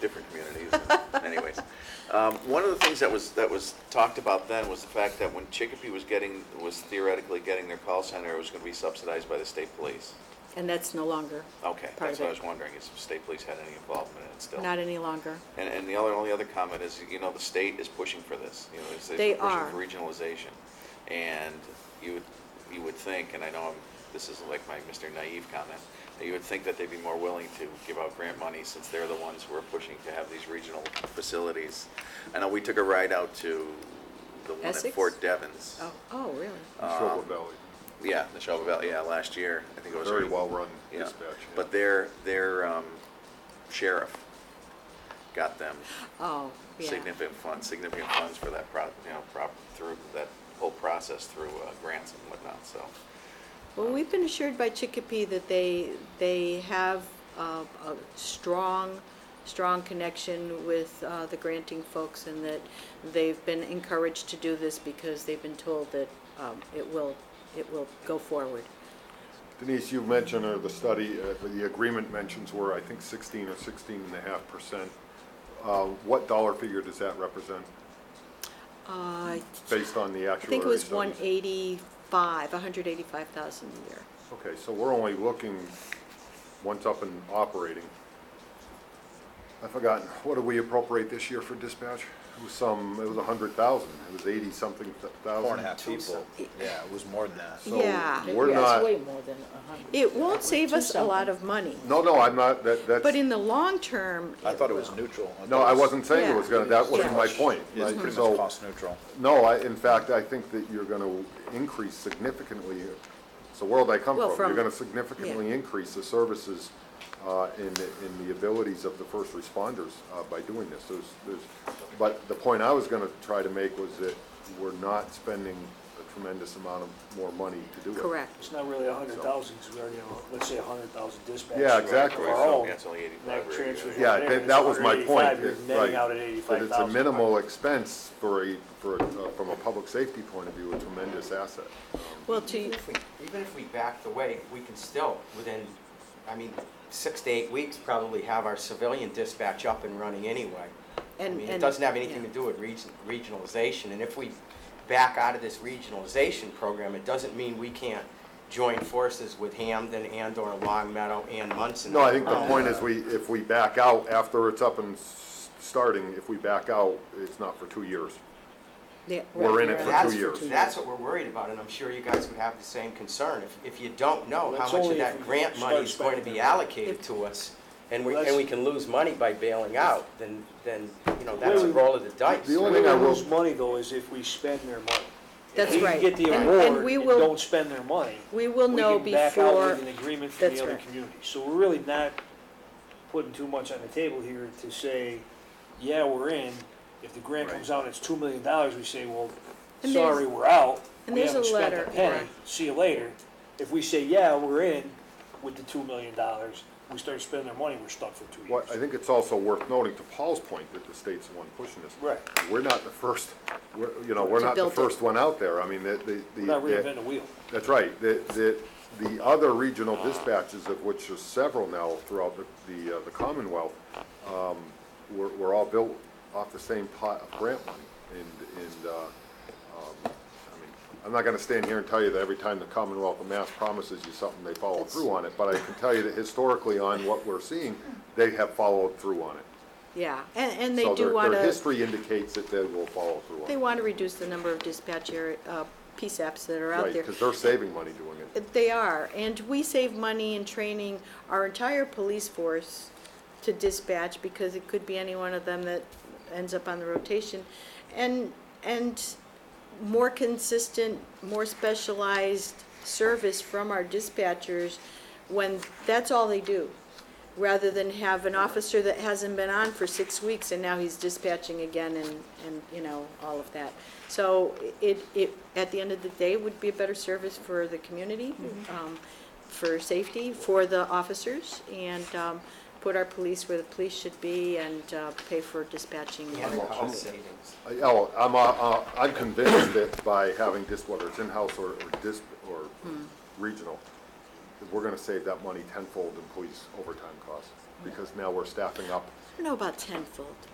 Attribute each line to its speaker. Speaker 1: Anyways, um, one of the things that was, that was talked about then was the fact that when Chicopee was getting, was theoretically getting their call center, it was gonna be subsidized by the state police.
Speaker 2: And that's no longer,
Speaker 3: Oh,
Speaker 1: Okay,
Speaker 2: Part
Speaker 1: that's
Speaker 2: of
Speaker 1: what I
Speaker 2: it.
Speaker 1: was wondering, is if state police had any involvement in it still?
Speaker 2: not any longer.
Speaker 1: And, and the other, only other comment is, you know, the state is pushing for this, you know, is
Speaker 2: They
Speaker 1: they're
Speaker 2: are.
Speaker 1: pushing for regionalization. And you would, you would think, and I know I'm, this is like my Mr. Naive comment, that you would think that they'd be more willing to give out grant money since they're the ones who are pushing to have these regional facilities. I know we took a ride out to the one at
Speaker 2: Essex?
Speaker 1: Fort Devens.
Speaker 2: Oh, oh, really?
Speaker 1: Uh,
Speaker 4: Neshoba Valley,
Speaker 1: Yeah, the Shelby Valley, yeah, last year, I think it was.
Speaker 4: very
Speaker 1: already-
Speaker 4: well-run
Speaker 1: yeah,
Speaker 4: dispatch. yeah.
Speaker 1: but their, their um, sheriff got them
Speaker 2: Oh, yeah.
Speaker 1: significant funds, significant funds for that pro, you know, prop, through that whole process through uh, grants and whatnot, so.
Speaker 2: Well, we've been assured by Chicopee that they, they have uh, a strong, strong connection with uh, the granting folks and that they've been encouraged to do this because they've been told that um, it will, it will go forward.
Speaker 4: Denise, you mentioned, or the study, uh, the agreement mentions were, I think, 16 or 16 and a half percent. Uh, What dollar figure does that represent,
Speaker 2: Uh, I
Speaker 4: based on the actuary studies?
Speaker 2: think it was 185, 185,000 a year.
Speaker 4: Okay, so we're only looking, once up and operating. I've forgotten, what did we appropriate this year for dispatch? It was some, it was 100,000, it was 80-something thousand.
Speaker 3: Four and a half people, yeah, it was more than that.
Speaker 4: So
Speaker 2: Yeah.
Speaker 4: we're not,
Speaker 5: way more than a hundred.
Speaker 2: It won't save us a lot of money,
Speaker 4: no, no, I'm not, that, that's.
Speaker 2: but in the long term.
Speaker 3: I thought it was
Speaker 2: will.
Speaker 3: neutral.
Speaker 4: No,
Speaker 3: thought
Speaker 4: I
Speaker 3: it was-
Speaker 4: wasn't saying it was gonna, that wasn't my point.
Speaker 3: It's
Speaker 4: Like,
Speaker 3: pretty
Speaker 4: so-
Speaker 3: much cost neutral.
Speaker 4: No, I, in fact, I think that you're gonna increase significantly, it's the world I come
Speaker 2: Well,
Speaker 4: from.
Speaker 2: from-
Speaker 4: You're gonna significantly increase the services, uh, in, the- in the abilities of the first responders, uh, by doing this. There's, there's, but the point I was gonna try to make was that we're not spending a tremendous amount of more money to do it.
Speaker 2: Correct.
Speaker 6: It's not really a hundred thousand, because we already have, let's say a hundred thousand dispatches.
Speaker 4: Yeah, exactly.
Speaker 6: Of our own.
Speaker 1: Yeah, it's only 85
Speaker 6: That
Speaker 1: already,
Speaker 6: transfers
Speaker 1: yeah.
Speaker 4: Yeah,
Speaker 6: right there,
Speaker 4: that,
Speaker 6: it's
Speaker 4: that was my point.
Speaker 6: 185, You're
Speaker 4: it- right.
Speaker 6: netting out at eighty-five thousand.
Speaker 4: That it's a minimal expense for a, for, a- uh, from a public safety point of view, a tremendous asset.
Speaker 2: Well, to,
Speaker 7: Even if we- even if we backed away, we can still, within, I mean, six to eight weeks, probably have our civilian dispatch up and running anyway. I
Speaker 2: And-
Speaker 7: mean, it
Speaker 2: and-
Speaker 7: doesn't have anything
Speaker 2: yeah.
Speaker 7: to do with region- regionalization, and if we back out of this regionalization program, it doesn't mean we can't join forces with Hamden and/or Long Meadow and Munson.
Speaker 4: No, I
Speaker 2: Oh,
Speaker 4: think the point is we, if we back out after it's up and s- starting, if we back out, it's not for two years.
Speaker 2: yeah,
Speaker 4: We're in it
Speaker 2: right.
Speaker 4: for two
Speaker 7: That's,
Speaker 4: years.
Speaker 7: that's what we're worried about, and I'm sure you guys would have the same concern. If, if you don't know how
Speaker 6: That's
Speaker 7: much of
Speaker 6: only if
Speaker 7: that
Speaker 6: we
Speaker 7: grant
Speaker 6: start
Speaker 7: money is going to
Speaker 6: spending
Speaker 7: be
Speaker 6: it.
Speaker 7: allocated to us, and we,
Speaker 6: Well,
Speaker 7: and we
Speaker 6: that's-
Speaker 7: can lose money by bailing out, then, then, you know, that's a
Speaker 6: Well,
Speaker 7: roll of the dice.
Speaker 4: the
Speaker 6: The
Speaker 4: only
Speaker 6: only
Speaker 4: thing I will-
Speaker 6: lose money, though, is if we spend their money.
Speaker 2: That's right.
Speaker 6: If we get
Speaker 2: And-
Speaker 6: the
Speaker 2: and
Speaker 6: award
Speaker 2: we
Speaker 6: and
Speaker 2: will-
Speaker 6: don't spend their money.
Speaker 2: We will know
Speaker 6: We can back out
Speaker 2: before,
Speaker 6: with an agreement from
Speaker 2: That's
Speaker 6: the other
Speaker 2: right.
Speaker 6: communities. So we're really not putting too much on the table here to say, yeah, we're in. If the grant comes out, and it's two million dollars, we say, well,
Speaker 2: And there's-
Speaker 6: sorry, we're out.
Speaker 2: and
Speaker 6: We
Speaker 2: there's a
Speaker 6: haven't spent
Speaker 2: letter,
Speaker 6: penny.
Speaker 2: right.
Speaker 6: See you later. If we say, yeah, we're in with the two million dollars, we start spending our money, we're stuck for two
Speaker 4: Well, I
Speaker 6: years.
Speaker 4: think it's also worth noting to Paul's point that the state's the one pushing this.
Speaker 6: Right.
Speaker 4: We're not the first, we're, you know, we're
Speaker 2: To
Speaker 4: not the
Speaker 2: build it.
Speaker 4: first one out there. I mean, the, the- the.
Speaker 6: We're not
Speaker 4: the-
Speaker 6: reinventing the wheel.
Speaker 4: That's right. The, the, the other regional dispatches, of which there's several now throughout the, the, uh, the Commonwealth, um, were, were all built off the same pot of grant money. And, and, uh, um, I mean, I'm not gonna stand here and tell you that every time the Commonwealth of Mass promises you something, they follow through on it, but I can tell you that historically on what we're seeing, they have followed through on it.
Speaker 2: yeah, and, and they
Speaker 4: So their-
Speaker 2: do want
Speaker 4: Their
Speaker 2: to,
Speaker 4: history indicates that they will follow through on
Speaker 2: they
Speaker 4: it.
Speaker 2: want to reduce the number of dispatch area, uh, PSAPs that are out
Speaker 4: Right,
Speaker 2: there.
Speaker 4: because they're saving money doing it.
Speaker 2: They are, and we save money in training our entire police force to dispatch because it could be any one of them that ends up on the rotation. And, and more consistent, more specialized service from our dispatchers when that's all they do. Rather than have an officer that hasn't been on for six weeks and now he's dispatching again and, and, you know, all of that. So it, it, at the end of the day, would be a better service for the community, um, for safety, for the officers, and, um, put our police where the police should be and, uh, pay for dispatching.
Speaker 7: And the cost savings.
Speaker 4: Uh, Oh, I'm, uh, uh, I'm convinced that by having this, whether it's in-house or, or dis, or regional, that we're gonna save that money tenfold in police overtime costs, because now we're staffing up.
Speaker 2: I don't know about tenfold.